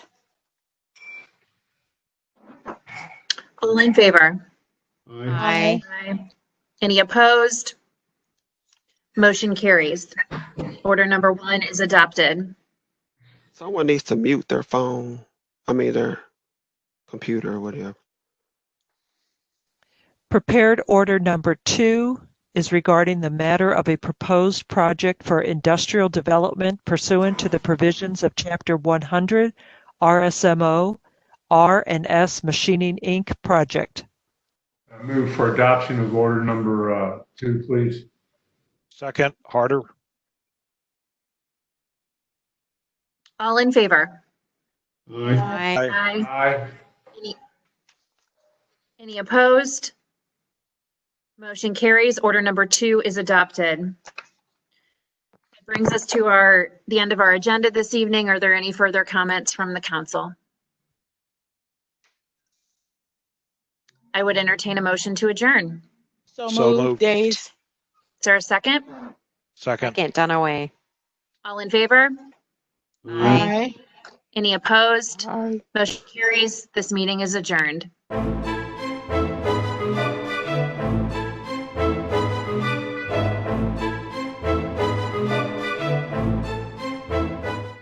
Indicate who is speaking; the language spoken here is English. Speaker 1: All in favor?
Speaker 2: Aye.
Speaker 3: Aye.
Speaker 1: Aye. Any opposed? Motion carries. Order number one is adopted.
Speaker 4: Someone needs to mute their phone. I mean their computer or whatever.
Speaker 5: Prepared order number two is regarding the matter of a proposed project for industrial development pursuant to the provisions of Chapter 100 RSMO R and S Machining Inc. project.
Speaker 2: I Move for adoption of order number uh, two, please.
Speaker 6: Second, Harder.
Speaker 1: All in favor?
Speaker 2: Aye.
Speaker 3: Aye.
Speaker 1: Aye.
Speaker 2: Aye.
Speaker 1: Any opposed? Motion carries. Order number two is adopted. That Brings us to our, the end of our agenda this evening. Are there any further comments from the council? I would entertain a motion to adjourn.
Speaker 3: So
Speaker 6: So
Speaker 3: moved,
Speaker 6: moved.
Speaker 3: Days.
Speaker 1: Is there a second?
Speaker 6: Second.
Speaker 7: Second, Dunaway.
Speaker 1: All in favor?
Speaker 3: Aye.
Speaker 1: Any opposed?
Speaker 7: Aye.
Speaker 1: Motion carries. This meeting is adjourned.